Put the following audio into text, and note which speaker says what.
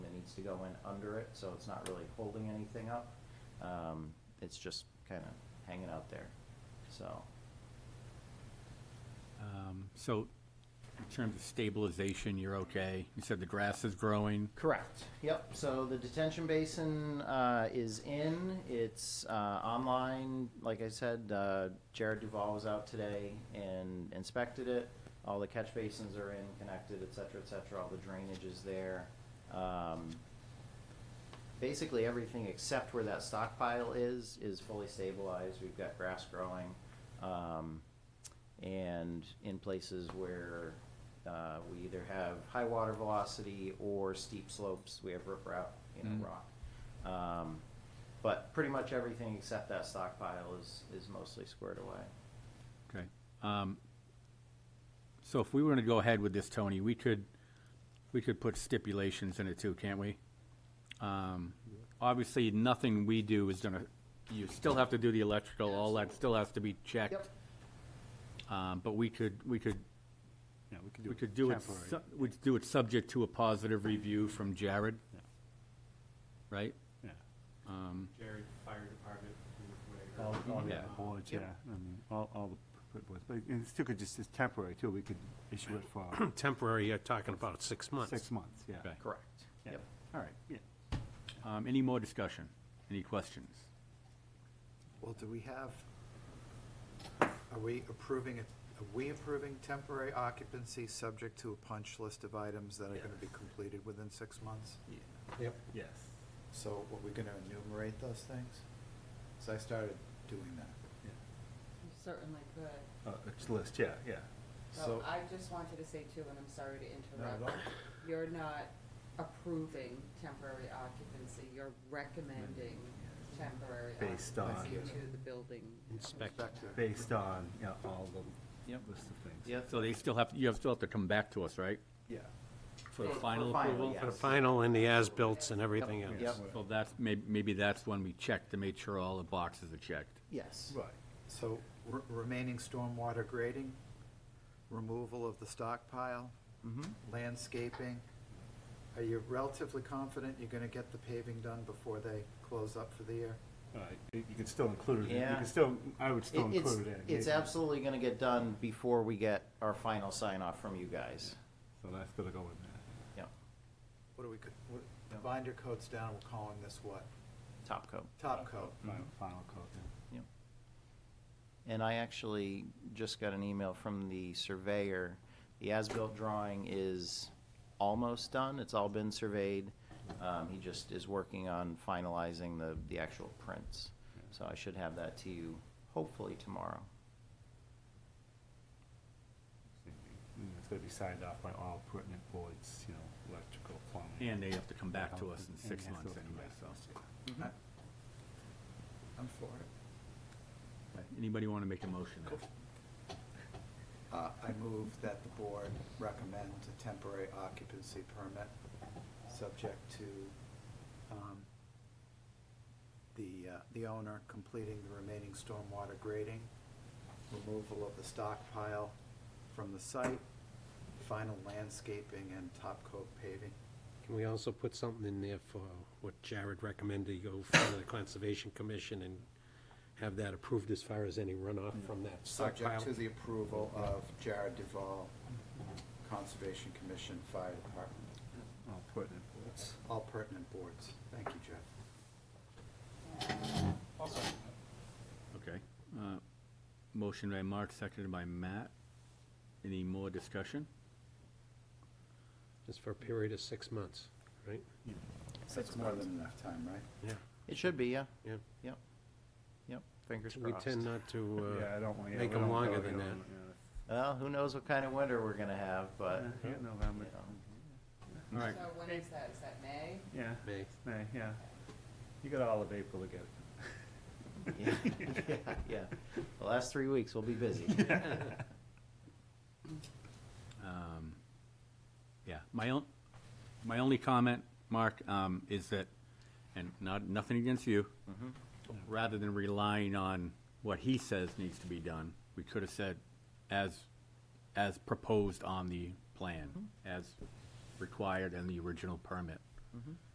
Speaker 1: to go in under it, so it's not really holding anything up. Um, It's just kind of hanging out there, so.
Speaker 2: Um, So in terms of stabilization, you're okay? You said the grass is growing?
Speaker 1: Correct. Yep. So the detention basin uh, is in. It's uh, online. Like I said, uh, Jared Duval was out today and inspected it. All the catch basins are in, connected, et cetera, et cetera. All the drainage is there. Um, basically everything except where that stockpile is is fully stabilized. We've got grass growing, um, and in places where uh, we either have high water velocity or steep slopes, we have riprap, you know,
Speaker 3: Mm-hmm.
Speaker 2: Mm.
Speaker 1: rock. Um, but pretty much everything except that stockpile is is mostly squared away.
Speaker 2: Okay. Um, So if we were to go ahead with this, Tony, we could, we could put stipulations in it too, can't we? Um, Obviously, nothing we do is gonna, you still have to do the electrical, all that still has to be checked. Um, But we could, we could,
Speaker 3: Yeah, we could do
Speaker 2: we
Speaker 3: it
Speaker 2: could do it,
Speaker 3: temporary.
Speaker 2: su- we'd do it subject to a positive review from Jared.
Speaker 3: Yeah.
Speaker 2: Right?
Speaker 3: Yeah,
Speaker 2: Um,
Speaker 4: Jared, fire department, whatever.
Speaker 1: Oh, oh,
Speaker 2: yeah.
Speaker 4: Uh,
Speaker 3: boards, yeah,
Speaker 1: Yep.
Speaker 3: I mean, all, all the p- p- boards, but it still could just, it's temporary too, we could issue it for
Speaker 5: Temporary, you're talking about six months.
Speaker 3: six months, yeah.
Speaker 2: Okay.
Speaker 1: Correct.
Speaker 3: Yeah.
Speaker 1: Yep.
Speaker 3: All right, yeah.
Speaker 2: Um, any more discussion? Any questions?
Speaker 6: Well, do we have, are we approving, it? are we approving temporary occupancy subject to a punch list of items that are gonna be completed within six months? Yep.
Speaker 2: Yes.
Speaker 6: So are we gonna enumerate those things? So I started doing that.
Speaker 7: You certainly could.
Speaker 3: Uh, it's list, yeah, yeah.
Speaker 7: So I just wanted to say too, and I'm sorry to
Speaker 6: No, no.
Speaker 7: interrupt, you're not approving temporary occupancy, you're recommending temporary
Speaker 3: Based on-
Speaker 7: occupancy to the building.
Speaker 5: Inspector.
Speaker 6: Inspector,
Speaker 3: Based on, you know, all the
Speaker 2: Yep.
Speaker 3: list of things.
Speaker 1: Yep.
Speaker 2: So they still have, you have, still have to come back to us, right?
Speaker 3: Yeah.
Speaker 2: For the
Speaker 1: For
Speaker 2: final
Speaker 1: final,
Speaker 2: approval?
Speaker 1: yeah.
Speaker 5: For the final and the as-bills and everything else.
Speaker 1: Yep.
Speaker 2: So that's, may- maybe that's when we check to make sure all the boxes are checked.
Speaker 1: Yes.
Speaker 3: Right,
Speaker 6: so re- remaining stormwater grading, removal of the stockpile,
Speaker 1: Mm-hmm.
Speaker 6: landscaping. Are you relatively confident you're gonna get the paving done before they close up for the year?
Speaker 3: all right, you you could still include it, in- you
Speaker 1: Yeah.
Speaker 3: could still, I would still
Speaker 1: It- It's,
Speaker 3: include it in.
Speaker 1: it's
Speaker 3: yeah.
Speaker 1: absolutely gonna get done before we get our final sign off from you guys.
Speaker 3: So that's gonna go in there.
Speaker 1: Yep,
Speaker 6: What do we, co- what, binder coat's down, we're calling this what?
Speaker 1: top coat.
Speaker 6: Top coat.
Speaker 3: Final,
Speaker 1: Mm-hmm.
Speaker 3: final code,
Speaker 1: Yep. And I actually just got an email from the surveyor. The as-built drawing is almost done. It's all been surveyed. Um, he just is working on finalizing the, the actual prints. So I should have that to you hopefully tomorrow.
Speaker 3: yeah. And It's gonna be signed off by all pertinent boards, you know, electrical, plumbing.
Speaker 2: And they have to come back to us in
Speaker 3: And
Speaker 2: six
Speaker 3: they have to
Speaker 2: months
Speaker 3: come
Speaker 2: anyway,
Speaker 3: back to
Speaker 2: so.
Speaker 3: us, yeah.
Speaker 6: I- I'm for it.
Speaker 2: Anybody want to make a motion?
Speaker 6: Uh, I move that the board recommend a temporary occupancy permit, subject to um, the, uh, the owner completing the remaining stormwater grading, removal of the stockpile from the site, final landscaping and top coat paving.
Speaker 5: Can we also put something in there for what Jared recommended, go for the Conservation Commission and have that approved as far as any runoff from that stockpile?
Speaker 6: Subject to the approval of Jared Duval, Conservation Commission, Fire Department,
Speaker 3: All pertinent boards.
Speaker 6: all pertinent boards. Thank you, Jeff.
Speaker 2: Okay. Uh, Motion by Mark, seconded by Matt. Any more discussion?
Speaker 5: Just for a period of six months, right?
Speaker 6: That's more than enough time, right?
Speaker 5: Yeah.
Speaker 1: It should be, yeah.
Speaker 5: Yeah.
Speaker 1: Yep. Yep, fingers
Speaker 5: We
Speaker 1: crossed.
Speaker 5: tend not to,
Speaker 3: Yeah, I
Speaker 5: uh,
Speaker 3: don't want, yeah,
Speaker 5: make
Speaker 3: we
Speaker 5: them
Speaker 3: don't
Speaker 5: longer
Speaker 3: go, you
Speaker 5: than
Speaker 3: know,
Speaker 5: that.
Speaker 3: yeah.
Speaker 1: Well, who knows what kind of winter we're gonna have, but,
Speaker 3: Yeah, yeah, November. um,
Speaker 2: All
Speaker 7: So
Speaker 2: right,
Speaker 7: when is that, is that May?
Speaker 3: Yeah,
Speaker 5: May.
Speaker 3: May, yeah. You got all of April to get
Speaker 1: yeah,
Speaker 3: it.
Speaker 1: yeah, yeah. The last three weeks, we'll be busy.
Speaker 2: Um, Yeah, my own, my only comment, Mark, um, is that, and not, nothing against you, rather than relying on what he says needs to be done, we could have said as, as proposed on the plan, as required in the original permit.